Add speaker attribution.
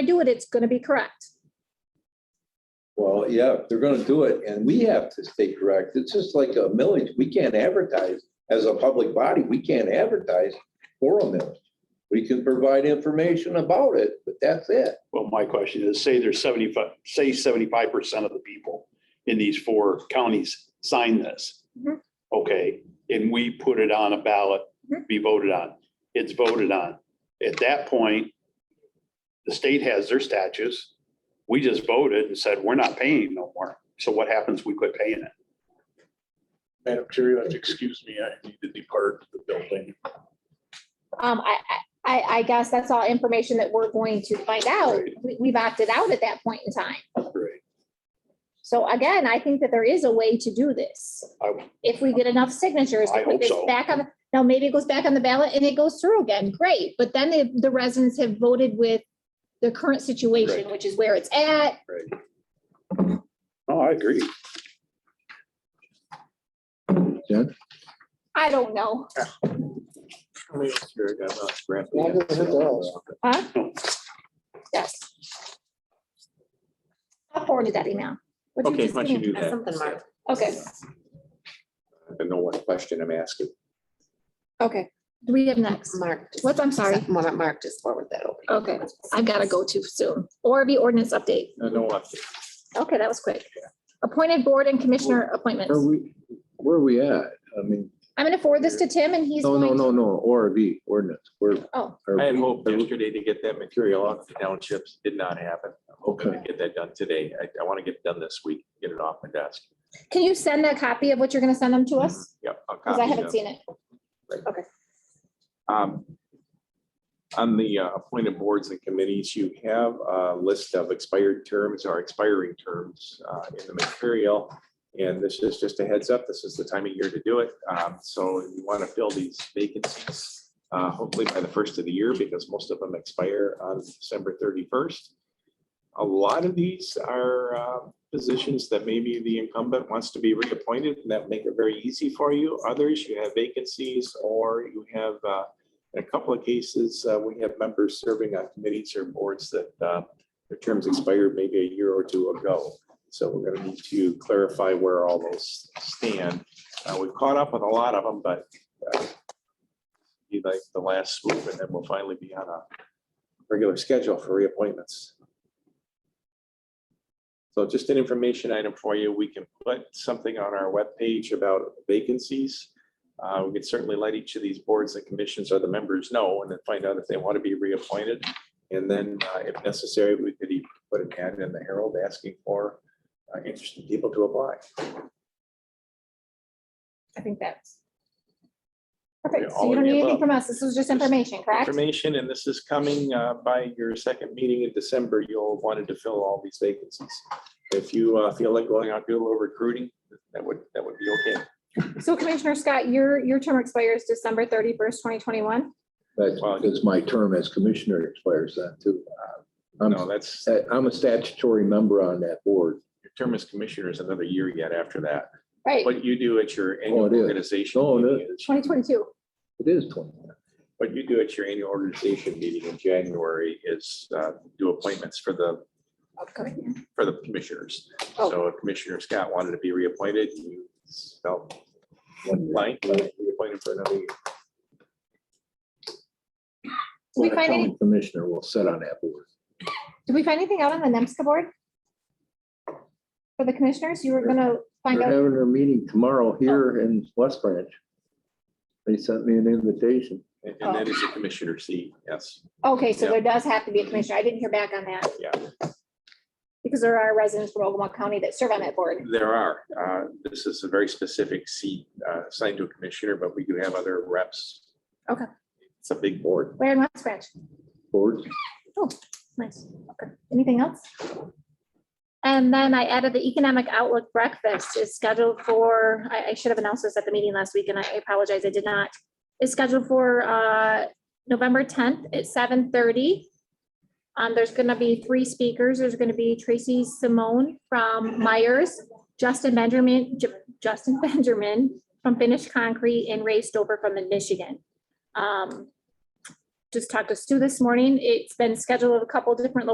Speaker 1: I do it, it's gonna be correct.
Speaker 2: Well, yeah, if they're gonna do it, and we have to stay correct. It's just like a millage. We can't advertise. As a public body, we can't advertise for a millage. We can provide information about it, but that's it.
Speaker 3: Well, my question is, say there's seventy-five, say seventy-five percent of the people in these four counties sign this.
Speaker 1: Mhm.
Speaker 3: Okay, and we put it on a ballot,
Speaker 1: Mhm.
Speaker 3: be voted on. It's voted on. At that point, the state has their statutes. We just voted and said, we're not paying no more. So what happens? We quit paying it.
Speaker 4: Madam Chair, you have to excuse me. I need to depart the building.
Speaker 1: Um, I, I- I, I guess that's all information that we're going to find out.
Speaker 3: Right.
Speaker 1: We, we've opted out at that point in time.
Speaker 3: Right.
Speaker 1: So again, I think that there is a way to do this.
Speaker 3: I-
Speaker 1: If we get enough signatures
Speaker 3: I
Speaker 1: to put
Speaker 3: hope
Speaker 1: this
Speaker 3: so.
Speaker 1: back on, now maybe it goes back on the ballot and it goes through again, great. But then the, the residents have voted with the current situation,
Speaker 3: Right.
Speaker 1: which is where it's at.
Speaker 3: Oh, I agree.
Speaker 1: I don't know. Huh? Yes. I forwarded that email. What'd you
Speaker 5: Okay,
Speaker 1: just
Speaker 5: why don't you
Speaker 1: email?
Speaker 5: do that?
Speaker 6: That's something, Mark.
Speaker 1: Okay,
Speaker 5: I know what question I'm asking.
Speaker 1: okay. Do we have next?
Speaker 6: Mark.
Speaker 1: What's, I'm sorry.
Speaker 6: Mark, Mark just forward that over.
Speaker 1: Okay, I've got to go too soon. ORB ordinance update.
Speaker 5: I know what.
Speaker 1: Okay, that was quick. Appointed board and commissioner appointments.
Speaker 7: Are we, where are we at? I mean,
Speaker 1: I'm gonna forward this to Tim and he's.
Speaker 7: no, no,
Speaker 1: going to-
Speaker 7: no, no, ORV ordinance, where.
Speaker 1: Oh.
Speaker 7: are
Speaker 5: I had
Speaker 7: we-
Speaker 5: hoped yesterday to get that material out to the townships. Did not happen. I'm hoping to
Speaker 7: Okay.
Speaker 5: get that done today. I, I want to get it done this week, get it off my desk.
Speaker 1: Can you send a copy of what you're gonna send them to us?
Speaker 5: Yep. I'll
Speaker 1: Because I
Speaker 5: copy
Speaker 1: haven't
Speaker 5: them.
Speaker 1: seen it.
Speaker 5: Um, On the uh, appointed boards and committees, you have a list of expired terms or expiring terms uh, in the material. And this is just a heads up, this is the time of year to do it. Um, So you want to fill these vacancies, uh, hopefully by the first of the year, because most of them expire on December thirty-first. A lot of these are uh, positions that maybe the incumbent wants to be reappointed, and that make it very easy for you. Others, you have vacancies, or you have uh, in a couple of cases, uh, we have members serving on committees or boards that uh, their terms expired maybe a year or two ago. So we're going to need to clarify where all those stand. Uh, We've caught up with a lot of them, but uh, be like the last swoop, and then we'll finally be on a regular schedule for reappointments. So just an information item for you. We can put something on our webpage about vacancies. Uh, We could certainly let each of these boards and commissions or the members know and then find out if they want to be reappointed. And then uh, if necessary, we could even put an ad in the Herald asking for uh, interested people to apply.
Speaker 1: I think that's. Perfect. So
Speaker 5: all
Speaker 1: you
Speaker 5: of
Speaker 1: don't
Speaker 5: the
Speaker 1: need anything
Speaker 5: above.
Speaker 1: from us. This was just information, correct?
Speaker 5: Information, and this is coming uh, by your second meeting in December. You'll have wanted to fill all these vacancies. If you uh, feel like going out, do a little recruiting, that would, that would be okay.
Speaker 1: So Commissioner Scott, your, your term expires December thirty-first, twenty twenty-one.
Speaker 7: That's because my term as commissioner expires then too. I'm,
Speaker 5: No, that's,
Speaker 7: I'm a statutory member on that board.
Speaker 5: your term as commissioner is another year yet after that.
Speaker 1: Right,
Speaker 5: What you do at your
Speaker 7: Oh,
Speaker 5: annual
Speaker 7: it is.
Speaker 5: organization.
Speaker 7: Oh, it
Speaker 5: meeting is-
Speaker 1: twenty twenty-two.
Speaker 7: It is twenty.
Speaker 5: What you do at your annual organization meeting in January is uh, do appointments for the,
Speaker 1: Upcoming.
Speaker 5: for the commissioners. So if Commissioner Scott wanted to be reappointed, you felt like reappointed for another year.
Speaker 1: Did we
Speaker 7: When a
Speaker 1: find
Speaker 7: county
Speaker 1: any,
Speaker 7: Commissioner will sit on that board.
Speaker 1: did we find anything out on the NEMSCA board? For the commissioners, you were gonna find
Speaker 7: They're
Speaker 1: out,
Speaker 7: having their meeting tomorrow here in West Branch. They sent me an invitation.
Speaker 5: And and that is a commissioner seat, yes.
Speaker 1: okay, so
Speaker 5: Yeah.
Speaker 1: there does have to be a commissioner. I didn't hear back on that.
Speaker 5: Yeah.
Speaker 1: Because there are residents from Ogama County that serve on that board.
Speaker 5: There are, uh, this is a very specific seat uh, assigned to a commissioner, but we do have other reps.
Speaker 1: Okay.
Speaker 5: It's a big board.
Speaker 1: Where in West Branch?
Speaker 7: Board,
Speaker 1: Nice. Okay. Anything else? And then I added the economic outlook breakfast is scheduled for, I, I should have announced this at the meeting last week and I apologize, I did not. It's scheduled for, uh, November tenth at seven thirty. Um, there's gonna be three speakers. There's gonna be Tracy Simone from Myers, Justin Benjamin, Ju- Justin Benjamin from Finished Concrete and Ray Stover from the Michigan. Um, just talked to Sue this morning. It's been scheduled at a couple different